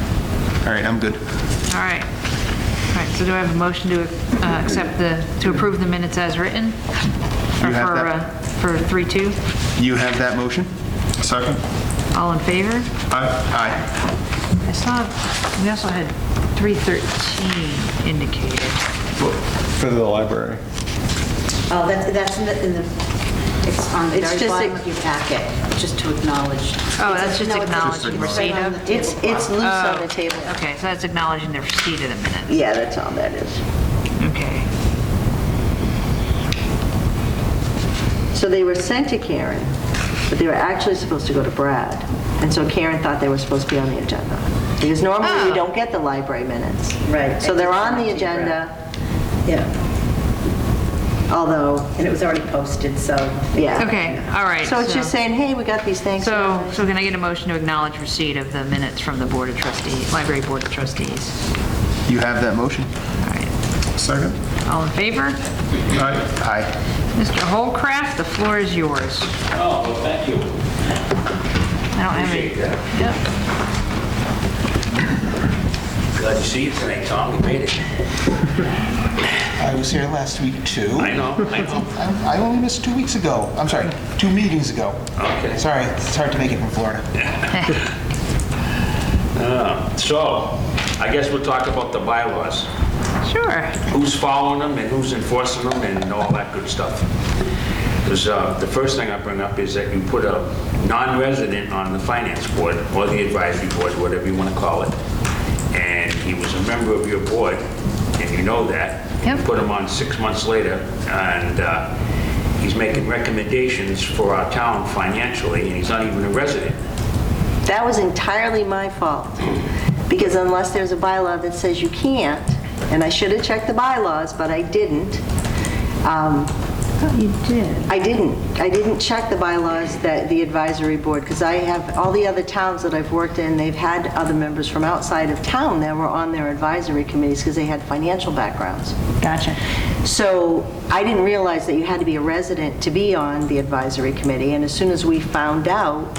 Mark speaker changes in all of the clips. Speaker 1: All right, I'm good.
Speaker 2: All right. All right, so do I have a motion to uh, accept the, to approve the minutes as written? Or
Speaker 1: You have
Speaker 2: for, uh, For
Speaker 1: that?
Speaker 2: 3-2?
Speaker 1: You have that motion?
Speaker 3: Second?
Speaker 2: All in favor?
Speaker 3: Aye.
Speaker 1: Aye.
Speaker 2: I saw, we also had 313 indicated.
Speaker 4: For the library.
Speaker 5: Oh, that's, that's in the, in the, it's on the
Speaker 6: It's
Speaker 5: very
Speaker 6: just
Speaker 5: bottom
Speaker 6: a-
Speaker 5: of your packet, just to acknowledge.
Speaker 2: Oh, that's just
Speaker 5: No, it's-
Speaker 2: acknowledging
Speaker 5: it's
Speaker 2: receipt
Speaker 5: right on
Speaker 2: of?
Speaker 5: the table.
Speaker 6: It's, it's loose
Speaker 2: Uh,
Speaker 6: on the table.
Speaker 2: Okay, so that's acknowledging the receipt of the minutes.
Speaker 6: Yeah, that's all that is.
Speaker 2: Okay.
Speaker 6: So they were sent to Karen, but they were actually supposed to go to Brad. And so Karen thought they were supposed to be on the agenda. Because normally
Speaker 2: Oh.
Speaker 6: we don't get the library minutes.
Speaker 5: Right.
Speaker 6: So they're on the
Speaker 5: It's on the
Speaker 6: agenda,
Speaker 5: Yeah,
Speaker 6: although,
Speaker 5: and it was already posted, so.
Speaker 6: yeah.
Speaker 2: Okay, all right.
Speaker 6: So it's just saying, hey, we got these things.
Speaker 2: So, so can I get a motion to acknowledge receipt of the minutes from the Board of Trustees, Library Board of Trustees?
Speaker 1: You have that motion?
Speaker 2: All right.
Speaker 3: Second?
Speaker 2: All in favor?
Speaker 3: Aye.
Speaker 1: Aye.
Speaker 2: Mr. Holcraft, the floor is yours.
Speaker 7: Oh, well, thank you. uh,
Speaker 2: I don't have any.
Speaker 7: Appreciate that.
Speaker 2: Yep.
Speaker 7: Glad to see you tonight, Tom. You made it.
Speaker 1: I was here last week, too. Oh,
Speaker 7: I know, I know.
Speaker 1: I I only missed two weeks ago. I'm sorry, two meetings ago.
Speaker 7: Okay.
Speaker 1: Sorry, it's hard to make it from Florida.
Speaker 7: So, I guess we'll talk about the bylaws.
Speaker 2: Sure.
Speaker 7: Who's following them and who's enforcing them and all that good stuff. Because the first thing I bring up is that you put a non-resident on the finance board, or the advisory board, whatever you want to call it. And he was a member of your board, and you know that. You
Speaker 2: Yep.
Speaker 7: Put him on six months later, and uh, he's making recommendations for our town financially, and he's not even a resident.
Speaker 6: That was entirely my fault, because unless there's a bylaw that says you can't, and I should have checked the bylaws, but I didn't. um,
Speaker 2: You did.
Speaker 6: I didn't, I didn't check the bylaws that the advisory board, because I have, all the other towns that I've worked in, they've had other members from outside of town that were on their advisory committees because they had financial backgrounds.
Speaker 2: Gotcha.
Speaker 6: So I didn't realize that you had to be a resident to be on the advisory committee, and as soon as we found out,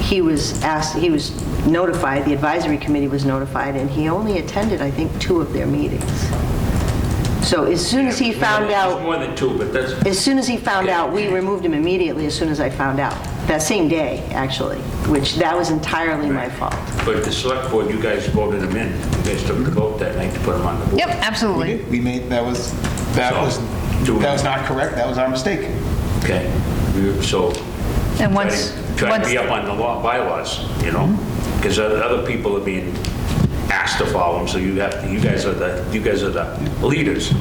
Speaker 6: he was asked, he was notified, the advisory committee was notified, and he only attended, I think, two of their meetings. So as soon as he found
Speaker 7: There's
Speaker 6: out,
Speaker 7: more than two, but that's,
Speaker 6: as soon as he found out, we removed him immediately as soon as I found out, that same day, actually, which that was entirely my fault.
Speaker 7: but the select board, you guys voted him in. You guys took the vote that night to put him on the board.
Speaker 2: Yep,
Speaker 1: We
Speaker 2: absolutely.
Speaker 1: did, we made, that was, that
Speaker 7: So,
Speaker 1: was,
Speaker 7: do we-
Speaker 1: that was not correct, that was our mistake.
Speaker 7: Okay, You- so.
Speaker 2: And
Speaker 7: try to-
Speaker 2: once-
Speaker 7: Try to
Speaker 2: once- Mm-hmm.
Speaker 7: be up on the law, bylaws, you know? Because other people are being asked to follow them, so you have, to- you guys are the, you guys are the leaders,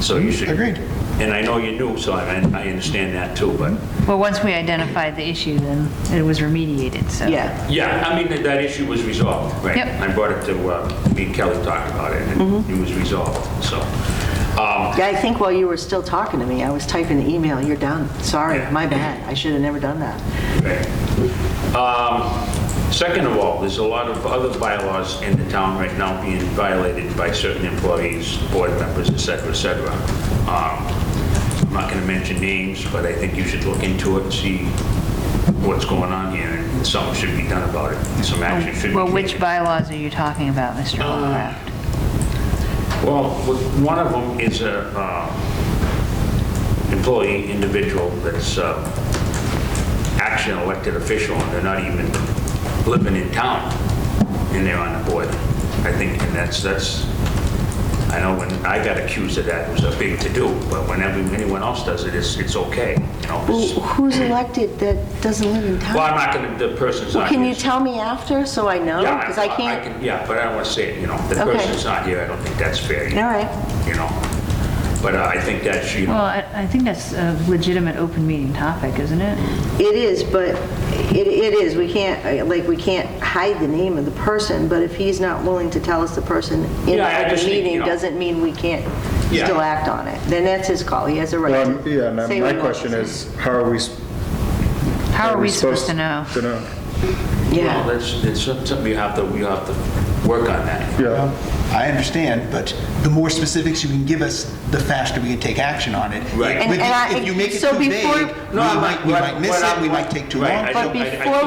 Speaker 7: so you should.
Speaker 1: Agreed.
Speaker 7: And I know you're new, so I, I understand that too, but,
Speaker 2: Well, once we identified the issue, then it was remediated, so.
Speaker 6: Yeah.
Speaker 7: yeah, I mean, that- that issue was resolved, right?
Speaker 2: Yep. Mm-hmm.
Speaker 7: I brought it to, uh, me and Kelly talked about it, and it was resolved, so. um,
Speaker 6: Yeah, I think while you were still talking to me, I was typing the email, you're done, sorry,
Speaker 7: Yeah.
Speaker 6: my bad, I should have never done that.
Speaker 7: Okay. Um, Second of all, there's a lot of other bylaws in the town right now being violated by certain employees, board members, et cetera, et cetera. Um, I'm not going to mention names, but I think you should look into it and see what's going on here, and something should be done about it, some action should be taken.
Speaker 2: Well, which bylaws are you talking about, Mr.
Speaker 7: Uh,
Speaker 2: Holcraft?
Speaker 7: Well, with- one of them is a uh, employee individual that's uh, actually an elected official, and they're not even living in town, and they're on the board. I think, and that's, that's, I know when I got accused of that, it was a big to-do, but whenever anyone else does it, it's, it's okay, you know?
Speaker 6: Who-
Speaker 7: it's-
Speaker 6: Who's elected that doesn't live in
Speaker 7: Well, I'm
Speaker 6: town?
Speaker 7: not gonna, the person's
Speaker 6: Well,
Speaker 7: not.
Speaker 6: Can
Speaker 7: here,
Speaker 6: you
Speaker 7: so-
Speaker 6: tell me after, so I know?
Speaker 7: Yeah,
Speaker 6: Because I can't,
Speaker 7: can- Yeah, but I don't want to say it, you know, the
Speaker 6: Okay.
Speaker 7: person's not here, I don't think that's fair.
Speaker 6: All right.
Speaker 7: You know, but uh, I think that's, you know,
Speaker 2: Well, I I think that's a legitimate open meeting topic, isn't it?
Speaker 6: it is, but it it is, we can't, uh, like, we can't hide the name of the person, but if he's not willing to tell us the person in
Speaker 7: Yeah, I
Speaker 6: the
Speaker 7: just think, you
Speaker 6: meeting,
Speaker 7: know-
Speaker 6: doesn't mean we can't
Speaker 7: Yeah.
Speaker 6: still act on it. Then that's his call, he has a right
Speaker 4: Um,
Speaker 6: to
Speaker 4: Yeah,
Speaker 6: say
Speaker 4: and my
Speaker 6: what he
Speaker 4: question
Speaker 6: wants.
Speaker 4: is, how are we? s-
Speaker 2: How are we supposed to know?
Speaker 4: To know,
Speaker 7: well,
Speaker 6: Yeah,
Speaker 7: that's, it's something you have to, you have to work on that.
Speaker 4: yeah.
Speaker 1: I understand, but the more specifics you can give us, the faster we can take action on it.
Speaker 7: Right.
Speaker 6: And-
Speaker 1: If you-
Speaker 6: and I-
Speaker 1: If you make it
Speaker 6: so
Speaker 1: too
Speaker 6: before-
Speaker 1: vague, we
Speaker 7: No, I'm
Speaker 1: might, we
Speaker 7: not-
Speaker 1: might miss
Speaker 7: what
Speaker 1: it,
Speaker 7: I'm-
Speaker 1: we might take too
Speaker 7: Right,
Speaker 1: long.
Speaker 7: I
Speaker 6: but
Speaker 7: don't- I- I
Speaker 6: before